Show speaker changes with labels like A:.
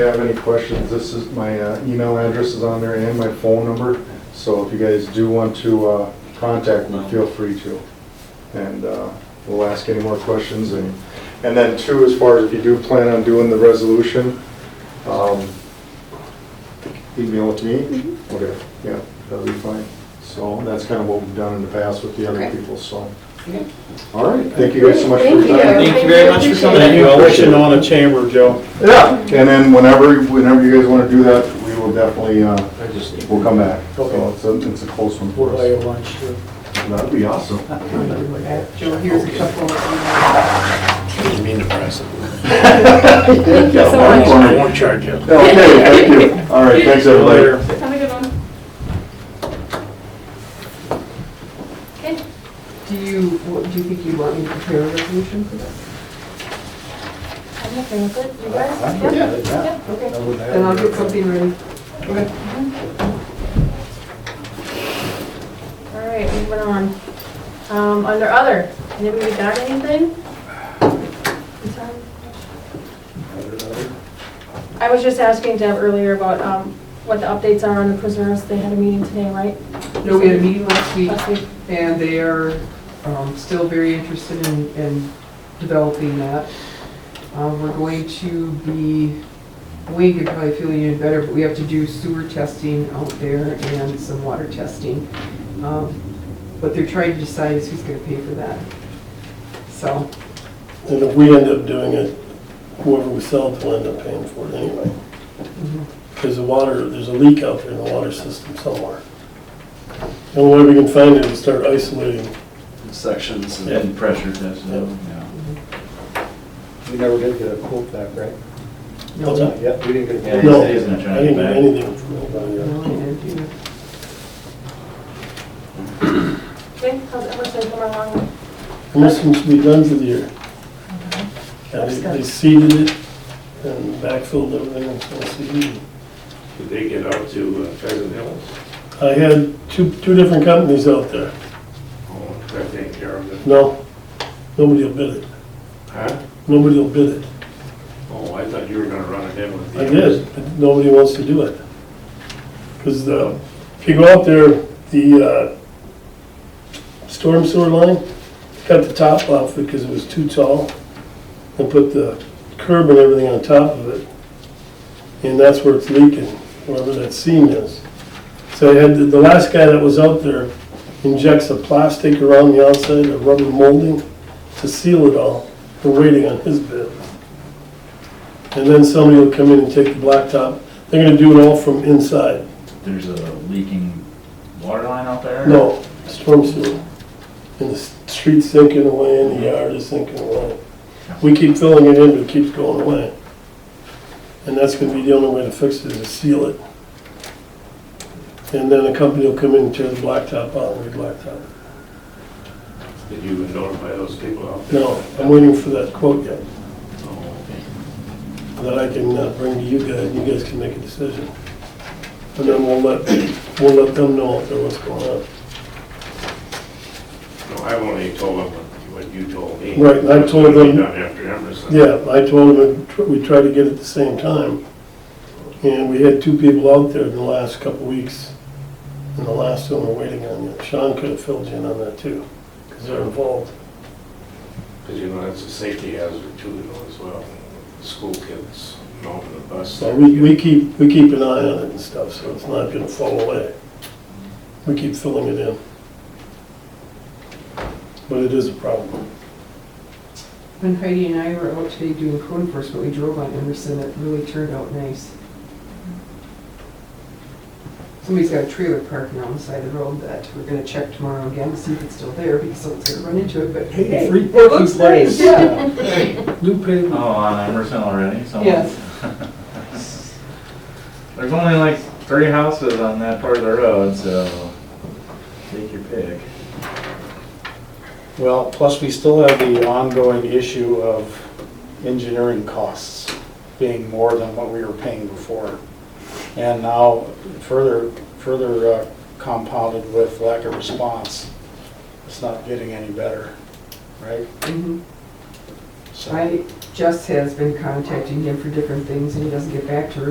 A: If you have any questions, this is, my uh, email address is on there and my phone number, so if you guys do want to uh, contact me, feel free to. And uh, we'll ask any more questions, and, and then two, as far as if you do plan on doing the resolution, um, email it to me?
B: Mm-hmm.
A: Okay, yeah, that'll be fine. So that's kind of what we've done in the past with the other
B: Okay.
A: people, so.
B: Okay.
A: All right, thank you guys so much for your
B: Thank you.
A: time.
C: Thank you very much for coming in.
D: Thank you, pushing on the chamber, Joe.
A: Yeah, and then whenever, whenever you guys want to do that, we will definitely, uh,
C: I just need.
A: we'll come back. So
D: Okay.
A: it's a, it's a close one
D: We'll
A: for
D: buy
A: us.
D: you lunch. too.
A: That'd be awesome.
B: Joe, here's a couple. of-
C: Didn't mean to press it.
A: Thank
B: you so much.
C: I won't charge you.
A: Okay, thank you. All right, thanks, everybody.
D: Later.
E: Have a good one. Okay.
B: Do you, what- do you think you want me to prepare a resolution for that?
E: I'm not feeling good. You guys?
A: Yeah.
E: Yep.
B: Okay, then I'll get something ready. Okay.
E: All right, moving on. Um, under other, anybody got anything? I was just asking Deb earlier about, um, what the updates are on the prisoners. They had a meeting today, right?
B: No, we had a meeting last week
E: Last week.
B: and they are um, still very interested in, in developing that. Uh, We're going to be, Wayne could probably feel you in better, but we have to do sewer testing out there and some water testing. Um, What they're trying to decide is who's gonna pay for that. So,
F: And if we end up doing it, whoever we sell it to will end up paying for it anyway.
B: mhm.
F: Because the water, there's a leak out there in the water system somewhere. The only way we can find it is start isolating.
C: Sections
F: and
C: pressure tests.
D: We never did get a quote back, right?
B: No,
F: What's that?
D: Yep, we didn't get a
F: No,
D: quote.
F: I didn't get anything from anybody.
B: no, I
F: else.
B: didn't do that.
E: Okay, how's Emerson coming along?
F: And this one should be done for the year. Yeah, they- They seeded it and backfilled everything and so seeded.
G: Did they get out to uh, Pheasant Hills?
F: I had two, two different companies out there.
G: Oh, they're taking care of it.
F: No, nobody will bid it.
G: Huh?
F: Nobody will bid it.
G: Oh, I thought you were gonna run it in with the...
F: It is, but nobody wants to do it. Because if you go out there, the uh, storm sewer line, cut the top off because it was too tall, and put the curb and everything on top of it. And that's where it's leaking, wherever that seam is. So I had, the the last guy that was out there injects a plastic around the outside, a rubber molding, to seal it all. We're waiting on his bid. And then somebody will come in and take the blacktop. They're gonna do it all from inside.
H: There's a leaking water line out there?
F: No, storm sewer. And the s- street's sinking away and the yard is sinking away. We keep filling it in, but it keeps going away. And that's gonna be the only way to fix it, is to seal it. And then a company will come in and tear the blacktop out, and re-blacktop.
G: Did you notify those people out there?
F: No, I'm waiting for that quote yet,
G: Oh, okay.
F: that I can uh, bring to you guys, you guys can make a decision. And then we'll let, we'll let them know out there what's going on.
G: No, I've only told them what what you told me.
F: Right, and I
G: It's
F: told
G: gonna be
F: them-
G: Done after Emerson.
F: Yeah, I told him that we tried to get it at the same time. And we had two people out there in the last couple weeks. And the last one we're waiting on. yet. Sean could have filled you in on that too, because they're involved.
G: Because, you know, that's a safety hazard too, you know, as well. School kids, you know, on the bus.
F: So we, we keep, we keep an eye on it and stuff, so it's not gonna fall away. We keep filling it in. But it is a problem.
B: When Heidi and I were out today doing code enforcement, we drove on Emerson, it really turned out nice. Somebody's got a trailer parking on the side of the road that we're gonna check tomorrow again, to see if it's still there, because someone's gonna run into it, but hey,
D: free
B: it looks
D: parking
B: nice,
D: place.
B: yeah.
D: New
H: Oh,
D: pavement.
H: on Emerson already, so.
B: Yes.
H: There's only like three houses on that part of the road, so take your pick.
D: Well, plus we still have the ongoing issue of engineering costs being more than what we were paying before. And now further, further uh, compounded with lack of response, it's not getting any better, right?
B: Mhm.
D: So-
B: Mm-hmm. I Jess has been contacting him for different things, and he doesn't get back to her,